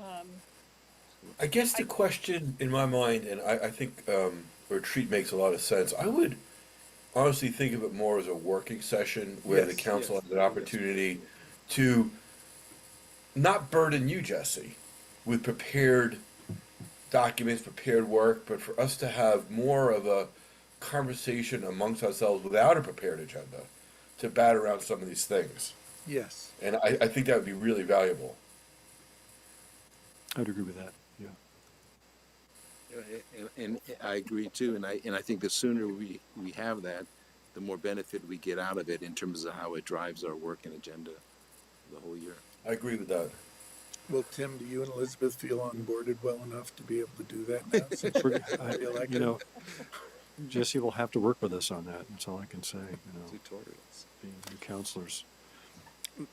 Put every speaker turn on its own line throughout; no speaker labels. um,
I guess the question in my mind, and I, I think um, retreat makes a lot of sense. I would honestly think of it more as a working session where the
Yes,
council
yes,
has an
yes.
opportunity to not burden you, Jesse, with prepared documents, prepared work, but for us to have more of a conversation amongst ourselves without a prepared agenda to bat around some of these things.
Yes,
And I, I think that would be really valuable.
I would agree with that. Yeah.
and, and I agree too, and I, and I think the sooner we, we have that, the more benefit we get out of it in terms of how it drives our work and agenda the whole year.
I agree with that.
Well, Tim, do you and Elizabeth feel onboarded well enough to be able to do that now? since you
We're-
got
I-
reelected?
You know, Jesse will have to work with us on that. That's all I can say, you know,
Tutorials.
being new counselors.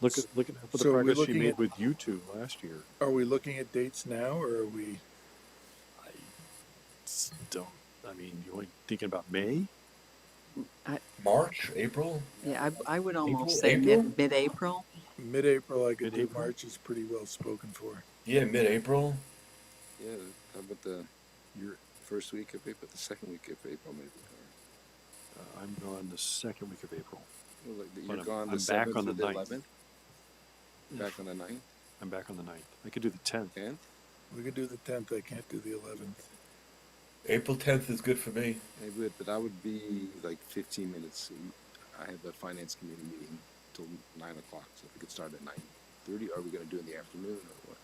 Look at, look at the
So are we
progress she
looking
made
at-
with you two last year.
Are we looking at dates now or are we,
S- Don't, I mean, you only thinking about May?
March, April?
Yeah, I, I would almost say
April?
mid, mid-April.
mid-April, I could do
Mid-April?
March is pretty well spoken for.
Yeah, mid-April.
Yeah, how about the, your first week of April, the second week of April maybe? or-
Uh, I'm gone the second week of April.
well, like,
But
You're
I'm-
gone
I'm
the
back
seventh
on
to
the
the
ninth.
eleventh? Back on the ninth,
I'm back on the ninth. I could do the tenth.
tenth?
We could do the tenth, I can't do the eleventh.
April 10th is good for me.
I would, but I would be like fifteen minutes. I have a finance committee meeting till nine o'clock, so if we could start at nine thirty, are we gonna do it in the afternoon or what?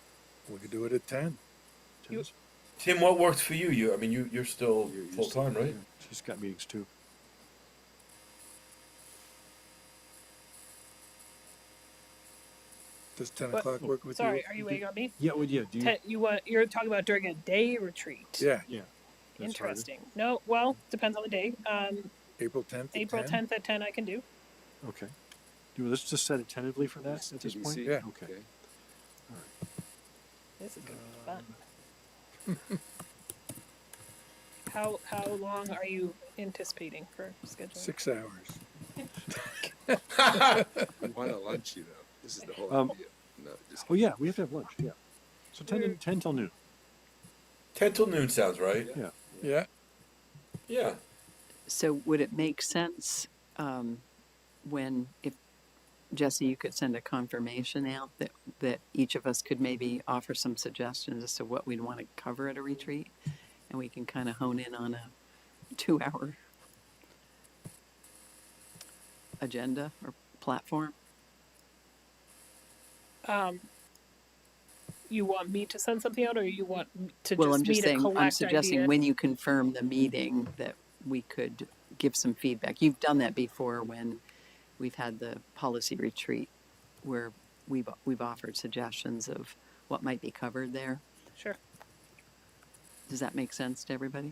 We could do it at ten.
You-
Ten's-
Tim, what works for you? You, I mean, you you're still
You're- you're
full time,
still-
right?
She's got meetings too.
Does ten
What?
o'clock work with you?
sorry, are you waiting on me?
Yeah, well, yeah, do you?
Te- you want, you're talking about during a day retreat.
Yeah,
Yeah. that's harder.
Interesting. No, well, depends on the day. Um,
April tenth at
April
ten?
tenth at ten I can do.
Okay. Do, let's just set it tentatively for that at this point?
TBC?
Yeah.
Okay.
This is gonna be fun.
Uh,
How, how long are you anticipating for scheduling?
Six hours.
Why not lunch, you know? This is the whole
Um,
idea. No, just
Oh, yeah, we have to have lunch, yeah. So ten, to- ten till noon.
Ten till noon sounds right.
Yeah.
Yeah,
Yeah.
So would it make sense, um, when, if, Jesse, you could send a confirmation out that, that each of us could maybe offer some suggestions as to what we'd want to cover at a retreat? And we can kind of hone in on a two-hour agenda or platform?
Um, you want me to send something out or you want m- to
Well,
just
I'm
me
just
to
saying,
collect
I'm suggesting
ideas?
when you confirm the meeting that we could give some feedback. You've done that before when we've had the policy retreat where we've, we've offered suggestions of what might be covered there.
Sure.
Does that make sense to everybody?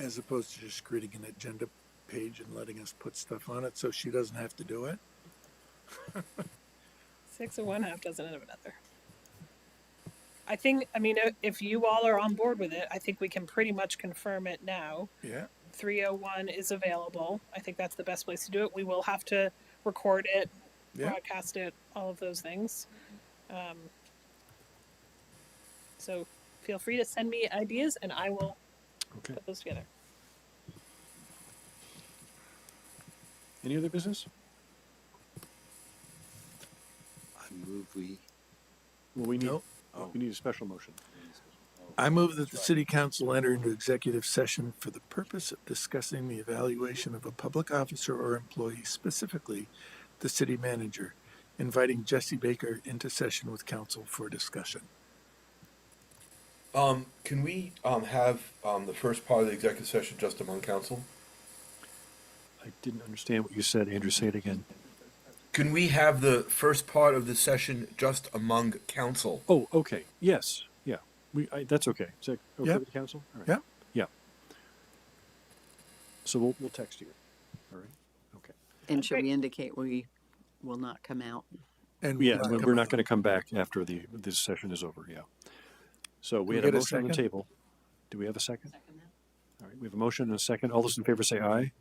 as opposed to just creating an agenda page and letting us put stuff on it so she doesn't have to do it.
Six of one, half dozen of another. I think, I mean, uh, if you all are on board with it, I think we can pretty much confirm it now.
Yeah,
301 is available. I think that's the best place to do it. We will have to record it,
yeah.
broadcast it, all of those things. Um, so feel free to send me ideas and I will
Okay.
put those together.
Any other business?
I move we.
Well, we need, oh,
Nope.
we need a special motion.
I move that the city council enter into executive session for the purpose of discussing the evaluation of a public officer or employee, specifically the city manager, inviting Jesse Baker into session with council for discussion.
Um, can we um have um the first part of the executive session just among council?
I didn't understand what you said, Andrew. Say it again.
Can we have the first part of the session just among council?
Oh, okay. Yes. Yeah. We, I, that's okay. Is that okay
Yeah.
with the council? All right.
Yeah.
Yeah. So we'll, we'll text you. All right. Okay.
And should
Okay.
we indicate we will not come out?
And
Yeah.
we'll
We're,
come
we're not
out.
going to come back after the, this session is over. Yeah. So we
we
had a
get a
motion on the
second?
table. Do we have a second? All right. We have a motion and a second. All those in favor say aye.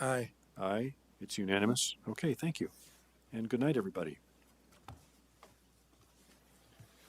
Aye.
Aye. It's unanimous. Okay. Thank you. And good night, everybody.